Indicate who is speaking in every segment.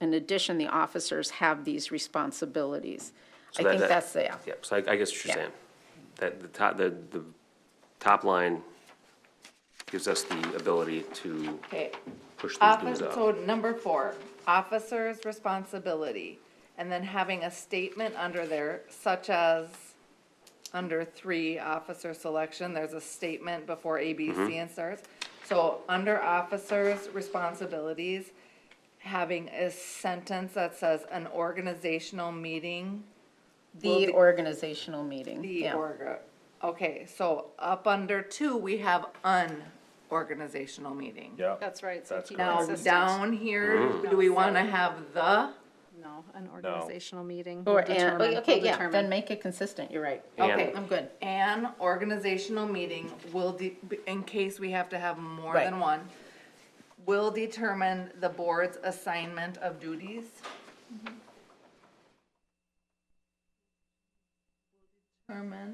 Speaker 1: in addition, the officers have these responsibilities. I
Speaker 2: So that-
Speaker 1: think
Speaker 2: that-
Speaker 1: that's, yeah.
Speaker 2: Yeah, so I, I guess what
Speaker 1: Yeah.
Speaker 2: you're saying, that the top, the, the top line gives us the ability to
Speaker 3: Okay,
Speaker 2: push these
Speaker 3: office,
Speaker 2: dues up.
Speaker 3: so number four, officer's responsibility, and then having a statement under there such as, under three, officer selection, there's a statement before A, B, C, and starts. So under officer's responsibilities, having a sentence that says an organizational meeting Will
Speaker 1: The
Speaker 3: the-
Speaker 1: organizational meeting,
Speaker 3: The
Speaker 1: yeah.
Speaker 3: org, okay, so up under two, we have unorganizational meeting.
Speaker 4: Yeah.
Speaker 5: That's right, so
Speaker 4: That's
Speaker 5: keep
Speaker 4: correct.
Speaker 3: Now,
Speaker 5: consistent.
Speaker 3: down here, do we wanna have the?
Speaker 5: No, an organizational meeting. will
Speaker 1: Or, and,
Speaker 5: determine-
Speaker 1: okay,
Speaker 5: will
Speaker 1: yeah,
Speaker 5: determine.
Speaker 1: then make it consistent, you're right.
Speaker 2: And-
Speaker 3: Okay.
Speaker 1: I'm good.
Speaker 3: An organizational meeting will, de- in case we have to have more
Speaker 1: Right.
Speaker 3: than one, will determine the board's assignment of duties. Determine,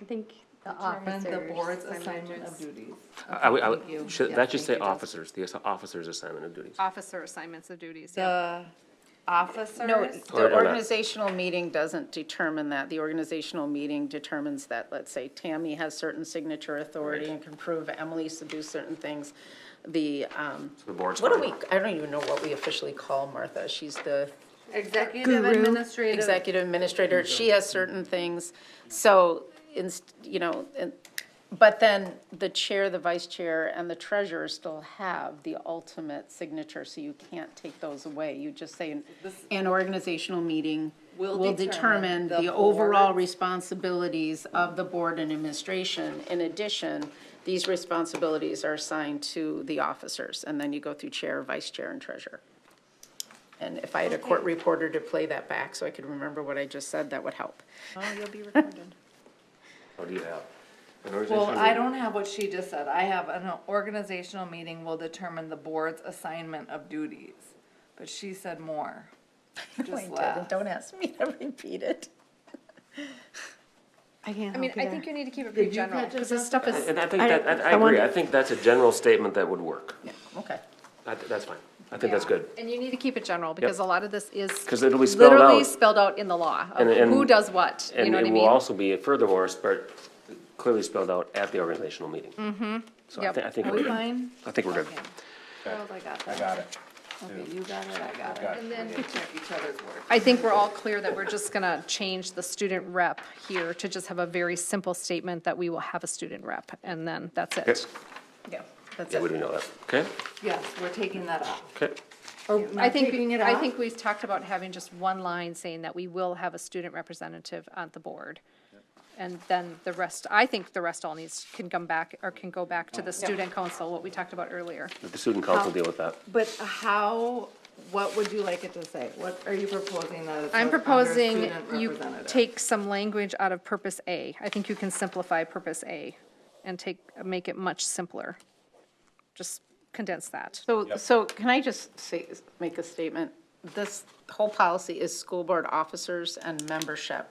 Speaker 6: I think the
Speaker 3: determine
Speaker 6: officers.
Speaker 3: the board's
Speaker 6: I would
Speaker 3: assignment of
Speaker 6: just-
Speaker 3: duties.
Speaker 2: I- I would, I would-
Speaker 3: Thank you.
Speaker 2: should,
Speaker 3: Yeah,
Speaker 2: that should say
Speaker 3: thank you, Jess.
Speaker 2: officers, the ass- officer's assignment of
Speaker 1: Uh,
Speaker 2: duties.
Speaker 5: Officer assignments of duties, yeah.
Speaker 3: The officers.
Speaker 1: No,
Speaker 2: Or- or
Speaker 1: the
Speaker 2: not.
Speaker 1: organizational meeting doesn't determine that. The organizational meeting determines that, let's say, Tammy has certain signature authority and can prove Emily's to do certain things. The, um,
Speaker 2: The board's
Speaker 1: what do we,
Speaker 2: fine.
Speaker 1: I don't even know what we officially call Martha. She's the
Speaker 3: Executive administrative.
Speaker 1: executive administrator. She has certain things. So, ins- you know, and- but then the chair, the vice chair, and the treasurer still have the ultimate signature, so you can't take those away. You just say, an- an organizational meeting
Speaker 3: Will
Speaker 1: will determine
Speaker 3: determine the
Speaker 1: the overall
Speaker 3: board-
Speaker 1: responsibilities of the board and administration. In addition, these responsibilities are assigned to the officers, and then you go through chair, vice chair, and treasurer. And if I had a court reporter to play that back so I could remember what I just said, that would help.
Speaker 5: Oh, you'll be recorded.
Speaker 2: What do you have? An
Speaker 3: Well,
Speaker 2: organizational
Speaker 3: I
Speaker 2: meeting?
Speaker 3: don't have what she just said. I have an organizational meeting will determine the board's assignment of duties. But she said more. Just laugh.
Speaker 1: Don't ask me to repeat it.
Speaker 6: I can't
Speaker 5: I mean,
Speaker 6: help you
Speaker 5: I
Speaker 6: there.
Speaker 5: think you need to keep it pretty general.
Speaker 1: Because this stuff is,
Speaker 2: And I think
Speaker 6: I-
Speaker 2: that, I- I
Speaker 6: I want-
Speaker 2: agree, I think that's a general statement that would work.
Speaker 1: okay.
Speaker 2: I thi- that's fine, I think that's
Speaker 5: Yeah.
Speaker 2: good.
Speaker 5: And you need to keep it general, because a lot of this is.
Speaker 2: 'Cause it'll be spelled
Speaker 5: Literally
Speaker 2: out.
Speaker 5: spelled out in the law, of
Speaker 2: And- and-
Speaker 5: who does what, you
Speaker 2: And
Speaker 5: know what I
Speaker 2: it
Speaker 5: mean?
Speaker 2: will also be furthermore, but clearly spelled out at the organizational meeting. Mm-hmm. So I
Speaker 5: Yep.
Speaker 2: think, I think
Speaker 3: Are
Speaker 2: we're
Speaker 3: we
Speaker 2: good,
Speaker 3: fine?
Speaker 2: I think we're good.
Speaker 3: Okay. Charles, I got
Speaker 4: I
Speaker 3: that.
Speaker 4: got it.
Speaker 3: Okay, you got it, I got it.
Speaker 4: Got
Speaker 5: And then-
Speaker 3: We check each other's work.
Speaker 5: I think we're all clear that we're just gonna change the student rep here to just have a very simple statement that we will have a student rep, and then that's
Speaker 2: Okay.
Speaker 5: it.
Speaker 1: Yeah, that's
Speaker 2: Yeah, we
Speaker 1: it.
Speaker 2: didn't know that, okay,
Speaker 3: Yes, we're taking that off.
Speaker 2: okay.
Speaker 3: Or
Speaker 5: I think, I think we've talked about having just one line saying that we will have a student representative on the board. And then the rest, I think the rest all needs, can come back, or can go back to the student council, what we talked about earlier.
Speaker 2: Let The student
Speaker 5: Oh.
Speaker 2: council deal with that.
Speaker 3: But how, what would you like it to say? What are you proposing that it says
Speaker 5: I'm
Speaker 3: under
Speaker 5: proposing
Speaker 3: student
Speaker 5: you
Speaker 3: representative?
Speaker 5: take some language out of purpose A. I think you can simplify purpose A and take, make it much simpler. Just condense that.
Speaker 1: So, so can I just say, make a statement? This whole policy is school board officers and membership.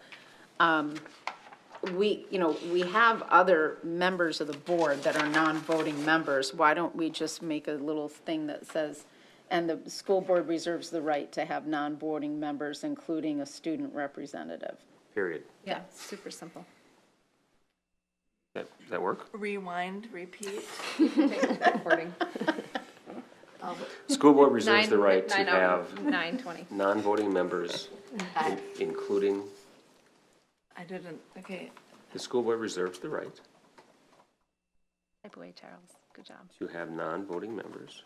Speaker 1: Um, We, you know, we have other members of the board that are non-voting members. Why don't we just make a little thing that says, and the school board reserves the right to have non-voting members, including a student representative?
Speaker 2: Period.
Speaker 5: Yeah, super simple.
Speaker 2: That, that work?
Speaker 3: Rewind, repeat.
Speaker 5: Wording.
Speaker 2: School board reserves the
Speaker 5: Nine-
Speaker 2: right to
Speaker 5: nine oh. out
Speaker 2: have
Speaker 5: of Nine, twenty.
Speaker 2: non-voting members, in- including,
Speaker 3: I didn't, okay.
Speaker 2: the school board reserves the right
Speaker 5: Type away, Charles. Good job.
Speaker 2: to have non-voting members.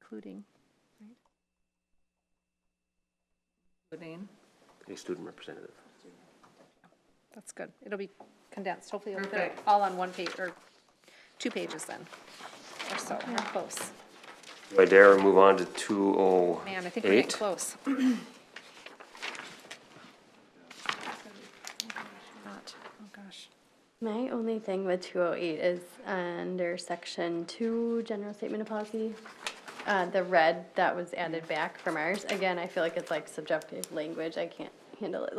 Speaker 5: Including.
Speaker 3: Including.
Speaker 2: a student representative.
Speaker 5: That's good. It'll be condensed. Hopefully it'll be
Speaker 3: Perfect.
Speaker 5: all on one page, or two pages then, or so, We're close.
Speaker 2: Do I dare move on to two oh
Speaker 5: Man, I think we're getting
Speaker 2: eight?
Speaker 5: close. Not, oh gosh.
Speaker 6: My only thing with two oh eight is under section two, general statement of policy. Uh, the red that was added back from ours, again, I feel like it's like subjective language, I can't handle it, like.